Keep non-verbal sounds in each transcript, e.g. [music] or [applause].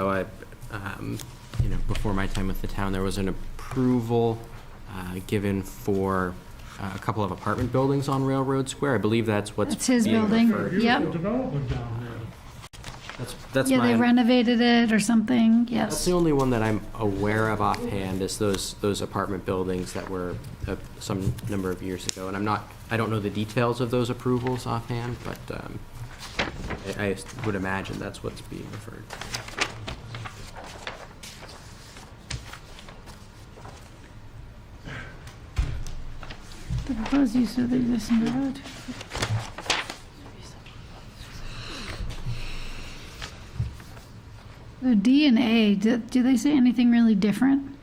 So I, um, you know, before my time with the town, there was an approval uh, given for uh, a couple of apartment buildings on Railroad Square. I believe that's what's. That's his being building. referred- Yep. Beautiful development down there. That's, that's Yeah, my. they renovated it or something, That's yes. the only one that I'm aware of offhand is those, those apartment buildings that were uh, some number of years ago. And I'm not, I don't know the details of those approvals offhand, but um, I I would imagine that's what's being referred. to. The proposed use of the existing road. The D and A, do, do they say anything really different?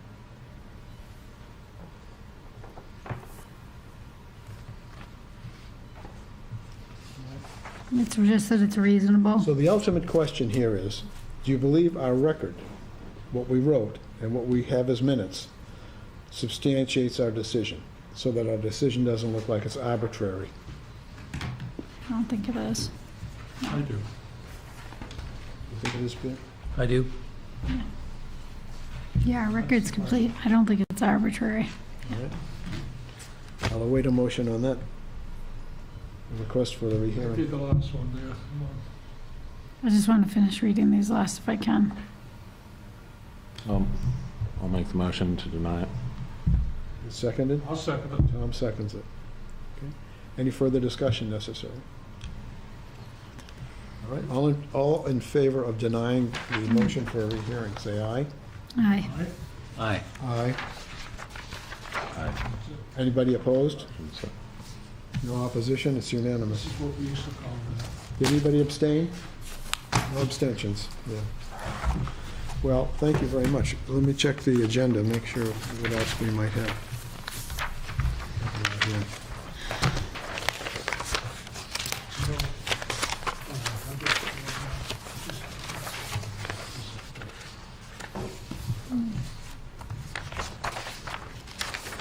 It's just that it's reasonable. So the ultimate question here is, do you believe our record, what we wrote and what we have as minutes, substantiates our decision, so that our decision doesn't look like it's arbitrary? I don't think it is. I do. You think it is, Bill? I do. Yeah, our record's complete. I don't think it's arbitrary. All right. I'll await a motion on that. A Request for the I rehearing. did the last one there. Come on. I just want to finish reading these last if I can. Um, I'll make the motion to deny it. Seconded? I'll second it. Tom seconds it. Okay. Any further discussion necessary? All right, all in, all in favor of denying the motion for a rehearing, say aye. Aye. All right. Aye. Aye. Anybody opposed? So- No opposition, it's This unanimous. is what we used to call that. Did anybody abstain? No abstentions, yeah. Well, thank you very much. Let me check the agenda, make sure what else we might have. Yeah. You know, uh, I guess, uh, just-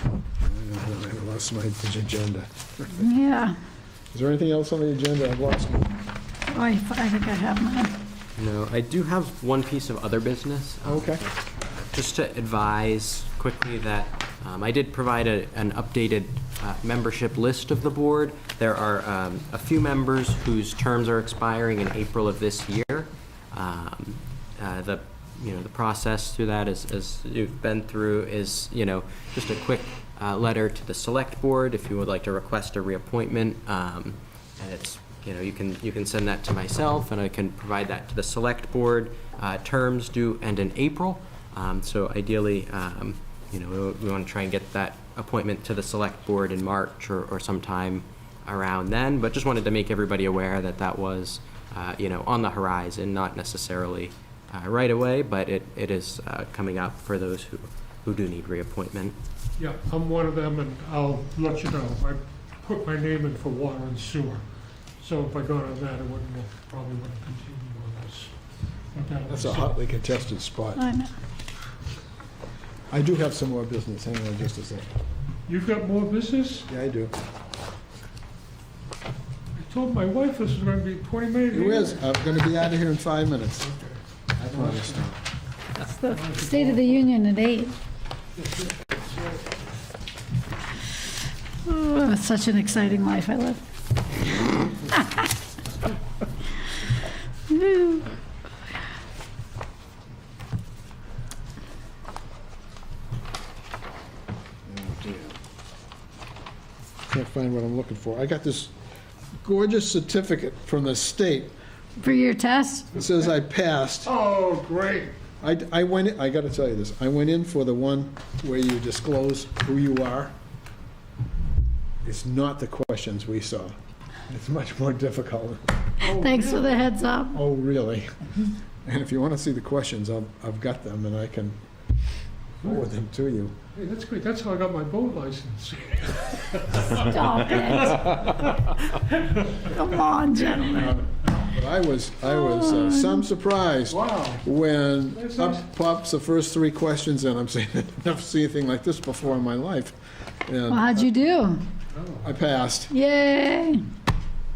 I lost my agenda. Yeah. Is there anything else on the agenda? I've lost it. Oh, I I think I have mine. No, I do have one piece of other business. um, Okay. Just to advise quickly that um, I did provide a- an updated uh, membership list of the board. There are um, a few members whose terms are expiring in April of this year. Um, uh, The, you know, the process through that is, as you've been through, is, you know, just a quick uh, letter to the select board if you would like to request a reappointment. Um, And it's, you know, you can, you can send that to myself, and I can provide that to the select board. Uh, Terms due end in April, Um, so ideally, um, you know, we- we want to try and get that appointment to the select board in March or or sometime around then, but just wanted to make everybody aware that that was, uh, you know, on the horizon, not necessarily uh, right away, but it it is uh, coming up for those who who do need reappointment. Yeah, I'm one of them, and I'll let you know. I put my name in for water and sewer, so if I got on that, I wouldn't, have- probably wouldn't continue on this. But that'll be That's a something. hotly contested spot. I know. I do have some more business, hang on just a second. You've got more business? Yeah, I do. I told my wife this was gonna be twenty minutes. It is, I'm gonna be out of here in five minutes. I promise. It's the State of the Union at eight. Oh, it's Such an exciting life I live. [laughs] Woo. Can't find what I'm looking for. I got this gorgeous certificate from the state. For your test? It says I passed. Oh, great. I, I went, I gotta tell you this, I went in for the one where you disclose who you are. It's not the questions we saw. It's much more difficult. Thanks for the heads up. Oh, really? And if you want to see the questions, I've, I've got them and I can forward them to you. Hey, that's great. That's how I got my boat license. Stop it. Come on, gentlemen. But I was, I was uh, some surprised Wow. when That's nice. up pops the first three questions and I'm saying, [laughs] I've never seen anything like this before in my life. Well, And how'd you do? I passed. Yay.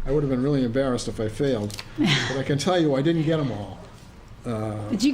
I would have been really embarrassed if I failed, but I can tell you, I didn't get them all. Did you